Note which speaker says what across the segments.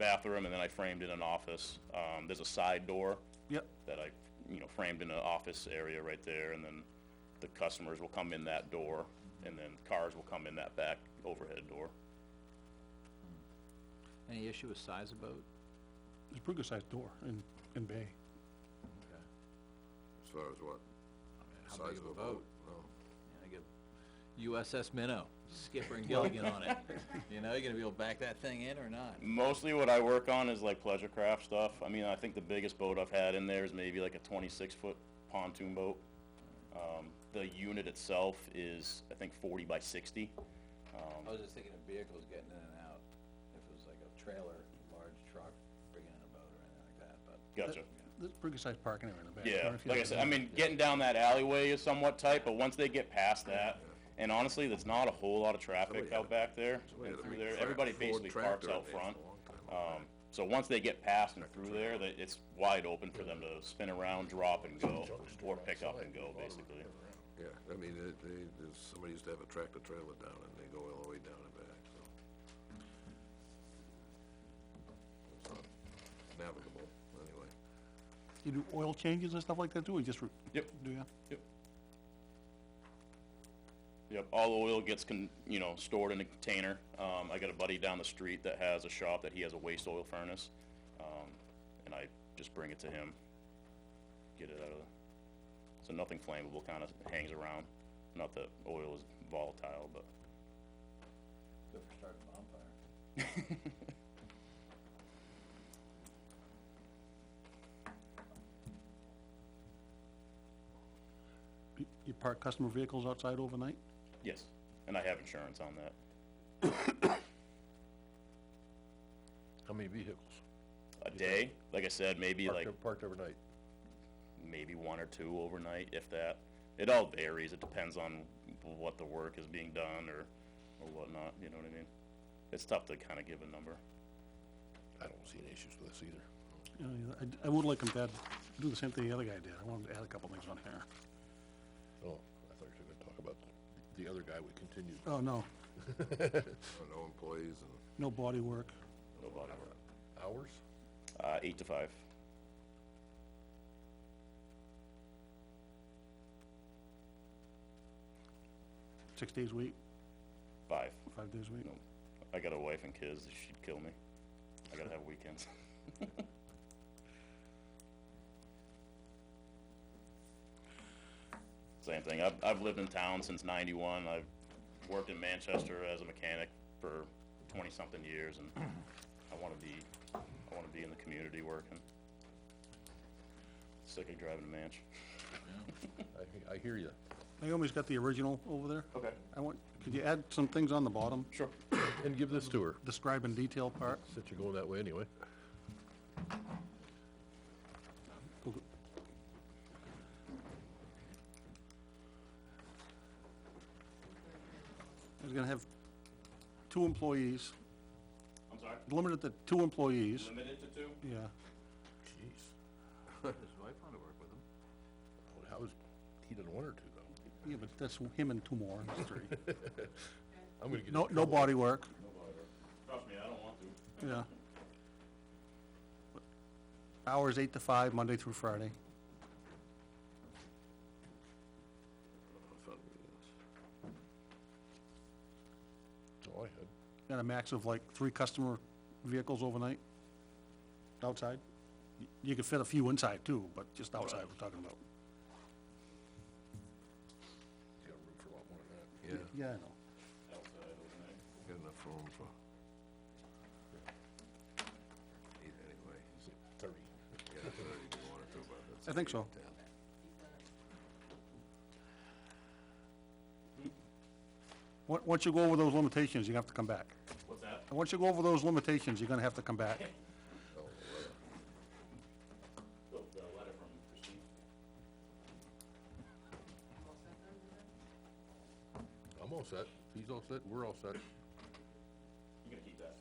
Speaker 1: bathroom, and then I framed in an office. Um, there's a side door
Speaker 2: Yep,
Speaker 1: that I, you know, framed in an office area right there, and then the customers will come in that door, and then cars will come in that back overhead door.
Speaker 3: Any issue with size of boat?
Speaker 2: it's a pretty good sized door in, in bay.
Speaker 3: Okay.
Speaker 4: As far as what?
Speaker 3: How
Speaker 4: Size
Speaker 3: big
Speaker 4: the
Speaker 3: of a boat?
Speaker 4: No.
Speaker 3: Yeah, I get USS Minnow, Skipper and Gilligan on it. You know, you gonna be able to back that thing in or not?
Speaker 1: Mostly what I work on is like pleasure craft stuff. I mean, I think the biggest boat I've had in there is maybe like a twenty-six foot pontoon boat. Um, the unit itself is, I think, forty by sixty.
Speaker 3: I was just thinking of vehicles getting in and out, if it was like a trailer, large truck bringing in a boat or anything like that, but.
Speaker 1: Gotcha.
Speaker 2: There's a pretty good sized parking area in the back.
Speaker 1: Yeah,
Speaker 2: don't know if you
Speaker 1: like I
Speaker 2: know
Speaker 1: said,
Speaker 2: that.
Speaker 1: I mean, getting down that alleyway is somewhat tight, but once they get past that, and honestly, there's not a whole lot of traffic
Speaker 4: Somebody had
Speaker 1: out
Speaker 4: a-
Speaker 1: back there
Speaker 4: Somebody
Speaker 1: and
Speaker 4: had a
Speaker 1: through
Speaker 4: big
Speaker 1: there.
Speaker 4: tra-
Speaker 1: Everybody
Speaker 4: Ford
Speaker 1: basically parks
Speaker 4: tractor
Speaker 1: out
Speaker 4: there for a
Speaker 1: front.
Speaker 4: long time out
Speaker 1: Um, so once they get past and through there, that it's wide open for them to spin around, drop and go, or pick up and go, basically.
Speaker 4: Yeah, I mean, they, they, there's, somebody used to have a tractor trailer down and they go all the way down and back, so. It's not Navigable, anyway.
Speaker 2: You do oil changes and stuff like that too, or you just? re-
Speaker 1: Yep.
Speaker 2: Do ya?
Speaker 1: Yep. Yep, all the oil gets con, you know, stored in a container. Um, I got a buddy down the street that has a shop that he has a waste oil furnace. Um, and I just bring it to him. Get it out of, so nothing flammable kinda hangs around. Not that oil is volatile, but
Speaker 3: Good for starting a bonfire.
Speaker 2: You- You park customer vehicles outside overnight?
Speaker 1: yes, and I have insurance on that.
Speaker 5: How many vehicles?
Speaker 1: A day, like I said, maybe
Speaker 5: Parked
Speaker 1: like,
Speaker 5: ev- Parked overnight?
Speaker 1: maybe one or two overnight, if that. It all varies, it depends on what the work is being done or, or whatnot, you know what I mean? It's tough to kinda give a number.
Speaker 5: I don't see any issues with this either.
Speaker 2: You know, I, I would like them to add- do the same thing the other guy did, I want him to add a couple things on here.
Speaker 5: Oh, I thought you were gonna talk about the other guy we continued.
Speaker 2: Oh, no,
Speaker 4: No- No employees and.
Speaker 2: no body work,
Speaker 1: Nobody.
Speaker 5: Hours?
Speaker 1: Uh, eight to five.
Speaker 2: six days a week,
Speaker 1: Five.
Speaker 2: five days a week.
Speaker 1: No, I got a wife and kids, she'd kill me. I gotta have weekends. Same thing, I've, I've lived in town since ninety-one, I've worked in Manchester as a mechanic for twenty-something years, and I wanna be, I wanna be in the community working. Sick of driving to Manch.
Speaker 5: I, he- I hear you.
Speaker 2: Naomi's got the original over there.
Speaker 1: Okay.
Speaker 2: I want, could you add some things on the bottom,
Speaker 1: Sure.
Speaker 5: And give this to her,
Speaker 2: describe in detail part?
Speaker 5: since you're going that way anyway.
Speaker 2: He's gonna have two employees,
Speaker 1: I'm sorry,
Speaker 2: limited to two employees,
Speaker 1: limited to two?
Speaker 2: yeah,
Speaker 5: Jeez.
Speaker 3: His wife wanted to work with him.
Speaker 5: Well, How is, he didn't want her to though.
Speaker 2: yeah, but that's him and two more, that's three.
Speaker 5: I'm gonna get in
Speaker 2: No, no
Speaker 5: trouble.
Speaker 2: body work,
Speaker 1: Trust me, I don't want to.
Speaker 2: yeah. Hours eight to five, Monday through Friday.
Speaker 5: That's all Oh, I had.
Speaker 2: Got a max of like three customer vehicles overnight, outside. Y- You could fit a few inside too, but just outside we're talking about.
Speaker 5: You got room for a lot more than that.
Speaker 4: Yeah,
Speaker 2: Yeah, I know.
Speaker 4: got enough room for. Eight anyway.
Speaker 5: He's at Thirty.
Speaker 4: Yeah, thirty if you wanted to, but that's.
Speaker 2: I think so.
Speaker 4: Yeah.
Speaker 2: On- Once you go over those limitations, you're gonna have to come back.
Speaker 1: What's that?
Speaker 2: And once you go over those limitations, you're gonna have to come back.
Speaker 1: The, the letter from Christine.
Speaker 5: I'm all set. He's all set. We're all set.
Speaker 1: You gonna keep that?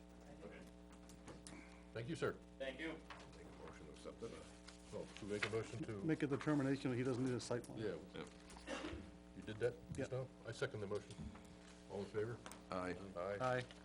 Speaker 1: Okay.
Speaker 5: Thank you, sir.
Speaker 1: Thank you.
Speaker 4: Make a motion to accept it, or?
Speaker 5: So, should we make a motion to?
Speaker 2: Make a determination that he doesn't need a site plan.
Speaker 5: Yeah. You did that just
Speaker 2: Yeah.
Speaker 5: now? I second the motion. All in favor?
Speaker 4: Aye.
Speaker 5: Aye.
Speaker 2: Aye.